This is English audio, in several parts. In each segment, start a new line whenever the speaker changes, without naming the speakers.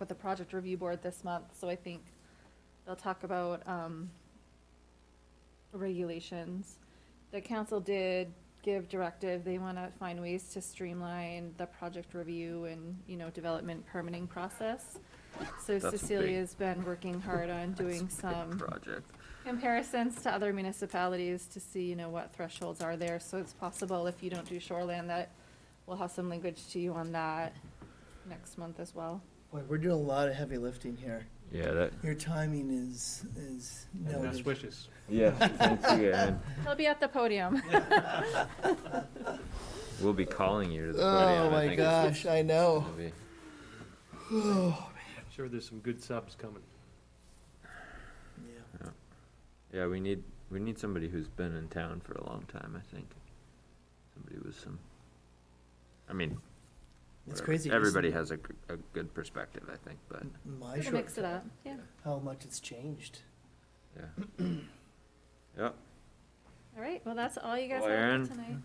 with the project review board this month, so I think they'll talk about, um, regulations. The council did give directive, they wanna find ways to streamline the project review and, you know, development permitting process. So
That's a big-
Cecilia's been working hard on doing some
Project.
comparisons to other municipalities to see, you know, what thresholds are there. So it's possible if you don't do shoreland that we'll have some language to you on that next month as well.
Boy, we're doing a lot of heavy lifting here.
Yeah, that.
Your timing is, is
Best
noted.
wishes.
Yeah, thank you, Ed.
He'll be at the podium.
We'll be calling you to the podium.
Oh
I
my
think it's
gosh, I know.
gonna be-
I'm sure there's some good subs coming.
Yeah.
Yeah, we need, we need somebody who's been in town for a long time, I think. Somebody with some, I mean.
It's
whatever.
crazy. just
Everybody has a, g- a good perspective, I think, but,
My
We'll mix it
shortcut,
up, yeah.
how much it's changed.
yeah. Yep,
All right, well, that's all you guys
Well,
have
Erin.
for tonight.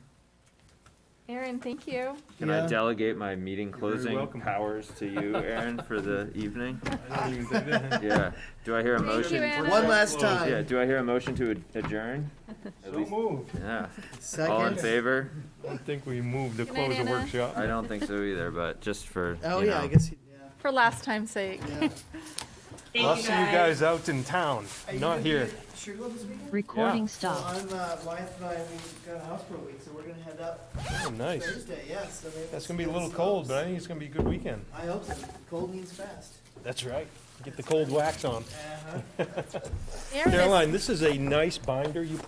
Aaron, thank you.
can I
Yeah.
delegate my meeting
You're very
closing
welcome.
powers to you, Aaron, for the evening?
I don't even think that-
Yeah, do I hear a
Thank you,
motion?
Anna.
One last
Well,
Yeah,
time.
do I hear a motion to ad- adjourn? At
So
least-
moved.
Yeah, all in
Second.
favor?
I think we moved to
Good night,
close the
Anna.
workshop.
I don't think so either, but just for,
Oh,
you
yeah, I
know.
guess, you- yeah,
For last time's sake.
yeah.
I'll see you guys out in town,
Are you
not
gonna be
here.
at Sugarloaf this weekend?
Recording
Well,
stopped.
I'm, uh, my, my, we got a house for a week, so we're gonna head up
Oh, nice.
Thursday, yeah, so maybe.
That's
it's
gonna be a
gonna
little
snow,
cold,
so-
but I think it's gonna be a good weekend.
I hope so. Cold means fast.
That's right. Get the cold wax on.
Uh-huh.
Aaron is
Caroline, this is a nice binder you put